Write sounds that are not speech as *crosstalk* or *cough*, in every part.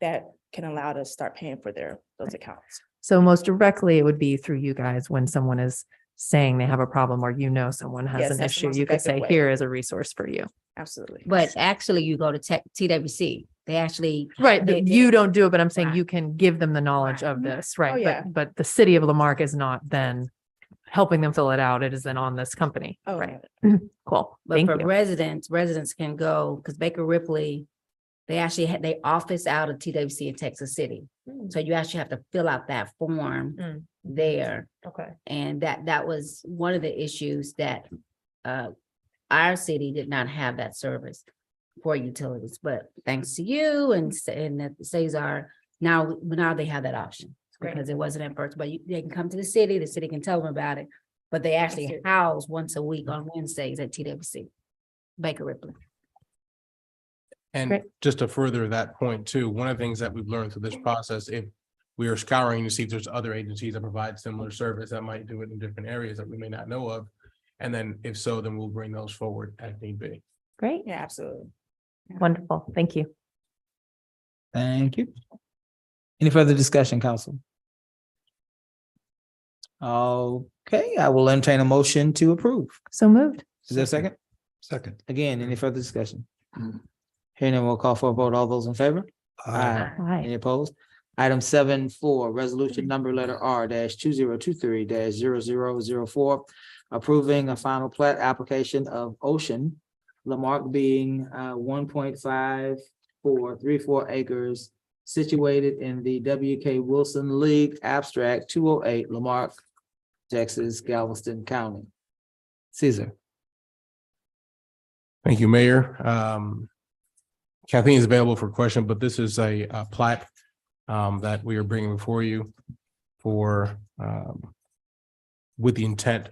that can allow to start paying for their, those accounts. So most directly, it would be through you guys when someone is saying they have a problem or you know someone Yes, has an that's the issue, most you could say, effective way. here is a resource for you. Absolutely. But actually, you go to tech, TWC, they actually. Right, they- that you don't do it, but I'm saying Right. you can give them the knowledge Right. of this, Oh, right? yeah. But, but the city of Lamarck is not then helping them fill it out. It is then on this company. Oh, Right, cool. But Thank for you. residents, residents can go, because Baker Ripley, they actually had, they office out of TWC in Texas City. Mm, So you actually have to fill out that Mm. form there. Okay. And that, that was one of the issues that uh, our city did not have that service for utilities, but thanks to you and, Sa- and that Cesar, now, now they have that option. Great. Because it wasn't at first, but you, they can come to the city, the city can tell them about it, but they actually house once a week on Wednesdays at TWC. Baker Ripley. And Great. just to further that point too, one of the things that we've learned through this process, if we are scouring to see if there's other agencies that provide similar service that might do it in different areas that we may not know of. And then if so, then we'll bring those forward as need be. Great, Yeah, absolutely. wonderful. Thank you. Thank you. Any further discussion, council? Okay, I will entertain a motion to approve. So moved. Is there a second? Mm. Second. Again, any further discussion? Hearing none, we'll call for a vote. All those in favor? Aye. Hi. Any opposed? Item seven four, resolution number letter R dash two zero two three dash zero zero zero four. Approving a final plat application of Ocean Lamarck being uh one point five four three four acres. Situated in the W K Wilson League Abstract two oh eight Lamarck, Texas, Galveston County. Caesar. Thank you, Mayor. Um, Kathleen is available for question, but this is a uh, plat um, that we are bringing before you for um, with the intent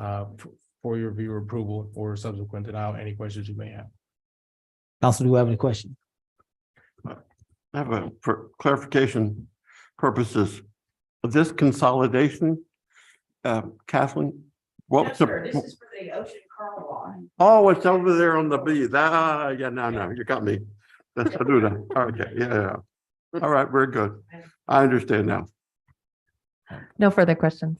uh, f- for your review or approval or subsequent denial, any questions you may have. Council, do you have any questions? I have a for clarification purposes. This consolidation, uh, Kathleen, what was the, for the ocean car line. oh, it's over there on the beach. Ah, yeah, no, no, you got me. That's, I do that. Okay, yeah, yeah. yeah. All right, very good. I understand now. No further questions.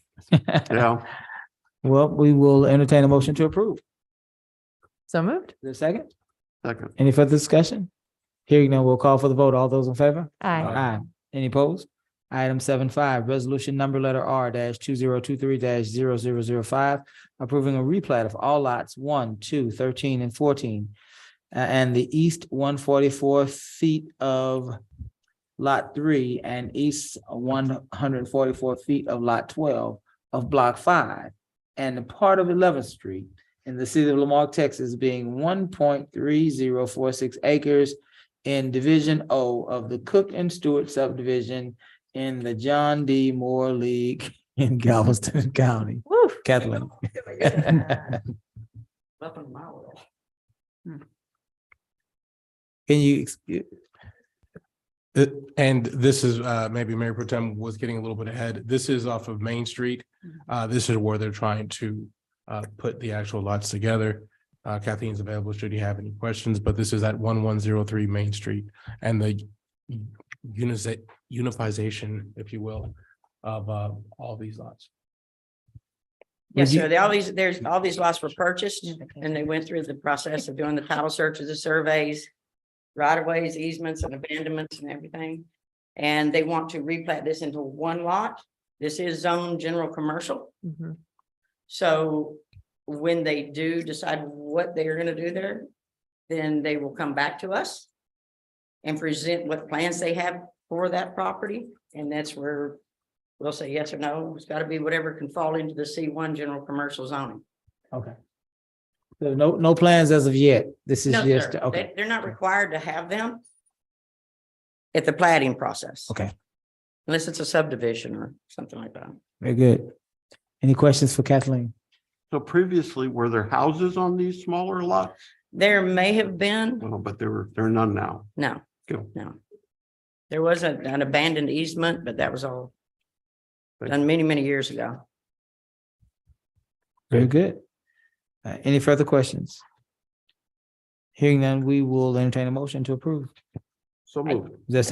Yeah, *laughs* Well, we will entertain a motion to approve. So moved. Is there a second? second. Any further discussion? Hearing none, we'll call for the vote. All those in favor? Aye. Aye. Any opposed? Item seven five, resolution number letter R dash two zero two three dash zero zero zero five, approving a replat of all lots one, two, thirteen, and fourteen. a- and the east one forty-four feet of lot three and east one hundred and forty-four feet of lot twelve of block five and the part of Eleventh Street in the city of Lamarck, Texas, being one point three zero four six acres in Division O of the Cook and Stewart subdivision in the John D. Moore League *laughs* in Galveston *laughs* County. Woo. Kathleen. Can Up in my world. you, ex- Uh, And this is, uh, maybe Mayor Protem was getting a little bit ahead. This is off of Main Street. Uh, this is where they're trying to, uh, put the actual lots together. Uh, Kathleen's available should you have any questions, but this is at one one zero three Main Street and the unification, unifization, if you will, of, uh, all these lots. Yes, Would you- sir. They, all these, there's, all these lots were purchased and they went through the process of doing the title searches, the surveys, right of ways, easements and abandonments and everything. And they want to replat this into one lot. This is zone general commercial. Mhm. So when they do decide what they are gonna do there, then they will come back to us and present what plans they have for that property, and that's where we'll say yes or no. It's gotta be whatever can fall into the C one general commercial zoning. okay. So no, no plans as of yet. This is No, just, sir, okay, they, they're not required to have them at the plating process. Okay. Unless it's a subdivision or something like that. very good. Any questions for Kathleen? So previously, were there houses on these smaller lots? There may have been, Well, but there were, there are none now. no, Good. no. There was a- an abandoned easement, but that was all Thank done many, many years ago. Very good. Uh, any further questions? Hearing none, we will entertain a motion to approve. So moved. Is there a